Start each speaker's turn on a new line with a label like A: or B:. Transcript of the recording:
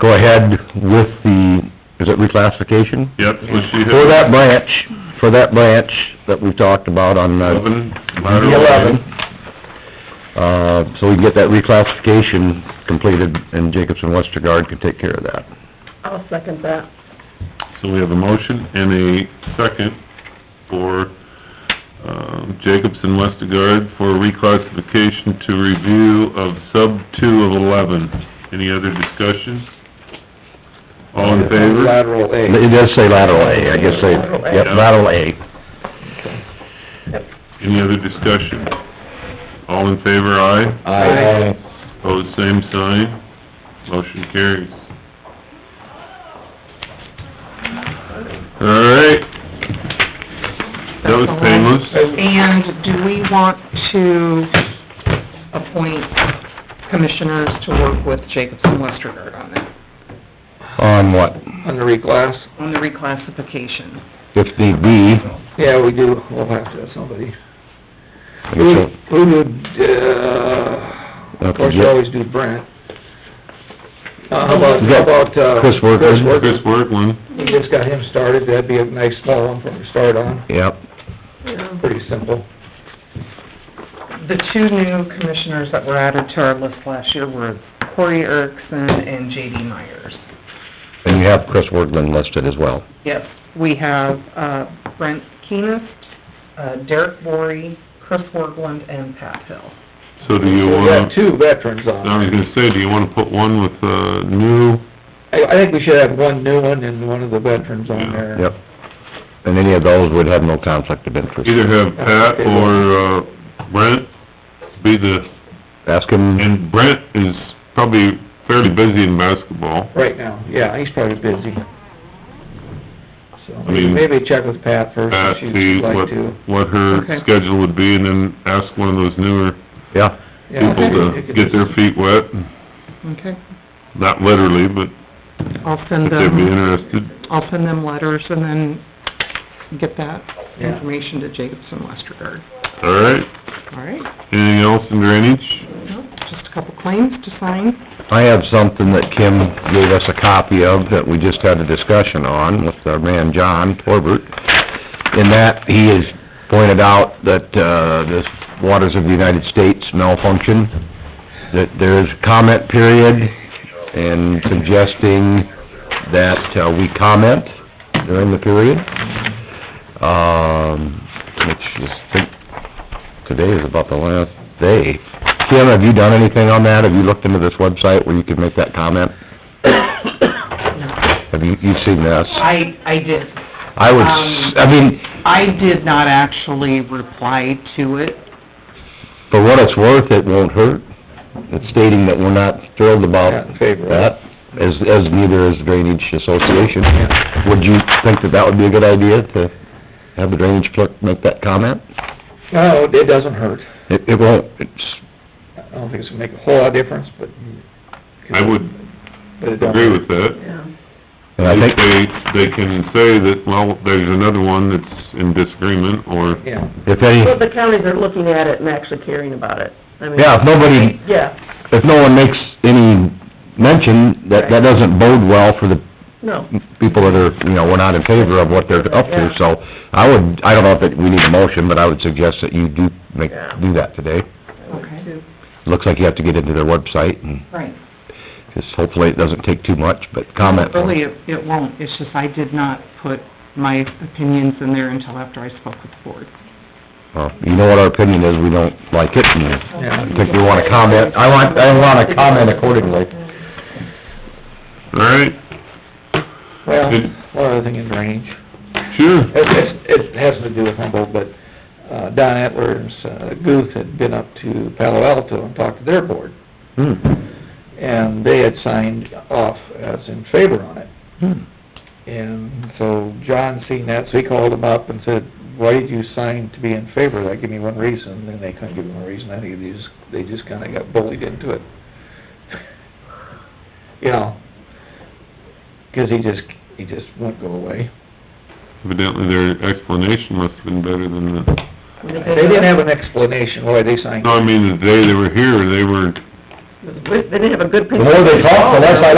A: go ahead with the, is it reclassification?
B: Yep, so she
A: For
B: had
A: that branch, for that branch that we've talked about on, uh,
B: eleven lateral.
A: eleven. Uh, so we can get that reclassification completed, and Jacobson Westergaard can take care of that.
C: I'll second that.
B: So we have a motion and a second for, um, Jacobson Westergaard for reclassification to review of sub two of eleven. Any other discussion? All in favor?
D: Lateral
A: It
D: A.
A: does say lateral A, I guess they,
C: Lateral A.
A: yep, lateral A.
B: Any other discussion? All in favor, aye.
D: Aye.
B: Pose same sign. Motion carries. All right. That was painless.
C: And do we want to appoint commissioners to work with Jacobson Westergaard on that,
A: On what?
D: On the reclass?
C: on the reclassification?
A: If need be,
D: Yeah, we do, we'll have to have somebody.
A: I
D: Who,
A: guess we'll-
D: who would, uh, of course, you always do Brent. Uh, how about, how about, uh...
A: Chris Workman.
B: Chris Workland,
D: We just got him started, that'd be a nice small one from the start on,
A: yep,
D: pretty simple.
C: The two new commissioners that were added to our list last year were Corey Erickson and J.D. Myers.
A: and you have Chris Workman listed as well.
C: Yes, we have uh, Brent Keenest, uh, Derek Bory, Chris Worgland, and Pat Hill.
B: so do you
D: We've got
B: wanna,
D: two veterans
B: I was
D: on.
B: gonna say, do you wanna put one with, uh, new?
D: I, I think we should have one new one and one of the veterans on there.
A: Yep. And any of those would have no conflict of interest.
B: Either have Pat or, uh, Brent be the,
A: Ask him,
B: and Brent is probably fairly busy in basketball.
D: Right now, yeah, he's probably busy. So,
B: I mean-
D: maybe check with Pat first
B: Pat,
D: if
B: see
D: she'd like
B: what,
D: to.
B: what her
C: Okay.
B: schedule would be, and then ask one of those newer
A: yeah,
D: Yeah,
B: people
D: it
B: to
D: could
B: get
D: just-
B: their feet wet,
C: Okay,
B: not literally, but
C: I'll send
B: if
C: them...
B: they'd be interested.
C: I'll send them letters and then get that
D: Yeah.
C: information to Jacobson Westergaard.
B: All right,
C: All right,
B: anything else in drainage?
C: Well, just a couple claims to sign.
A: I have something that Kim gave us a copy of that we just had a discussion on with our man John Torbert. In that, he has pointed out that, uh, the waters of the United States malfunction, that there's comment period and suggesting that uh, we comment during the period. Um, which is, I think, today is about the last day. Kim, have you done anything on that? Have you looked into this website where you can make that comment? Have you, you've seen this?
C: I, I did,
A: I would,
C: um,
A: s- I mean,
C: I did not actually reply to it.
A: for what it's worth, it won't hurt. It's stating that we're not thrilled
D: Not
A: about
D: in favor of it.
A: that, as, as neither is Drainage Association.
D: Yeah.
A: Would you think that that would be a good idea to have the drainage clerk make that comment?
D: No, it doesn't hurt.
A: It, it won't, it's,
D: I don't think it's gonna make a whole lot of difference, but...
B: I would
D: But it don't...
B: agree with that.
A: and I
B: At
A: think,
B: least they, they can say that, well, there's another one that's in disagreement, or,
D: Yeah,
A: if any,
E: Well, the counties are looking at it and actually caring about it. I mean,
A: yeah, if nobody
E: Yeah,
A: if no one makes any mention, that, that doesn't bode well for the
E: no.
A: people that are, you know, we're not in favor of what they're up to, so I would, I don't know if it- we need a motion, but I would suggest that you do make, do that today.
C: Okay.
A: Looks like you have to get into their website, and
C: Right.
A: just hopefully it doesn't take too much, but comment.
C: Really, it, it won't, it's just I did not put my opinions in there until after I spoke with the board.
A: Uh, You know what our opinion is, we don't like it, and
D: yeah.
A: I think we wanna comment, I want, I wanna comment accordingly.
B: all right,
D: Well,
B: Good.
D: one other thing in range,
B: sure.
D: it, it's- it has to do with Humboldt, but, uh, Don Etler's, uh, Guth had been up to Palo Alto and talked to their board,
A: Hmm.
D: and they had signed off as in favor on it.
A: Hmm.
D: And so John seen that, so he called him up and said, why did you sign to be in favor of that? Give me one reason, and they couldn't give him a reason, I think they just, they just kinda got bullied into it. You know, 'cause he just, he just won't go away.
B: Evidently, their explanation must have been better than the,
D: They didn't have an explanation why they signed.
B: no, I mean, the day they were here, they were
E: They didn't have a good.
A: The more they talk, the less I like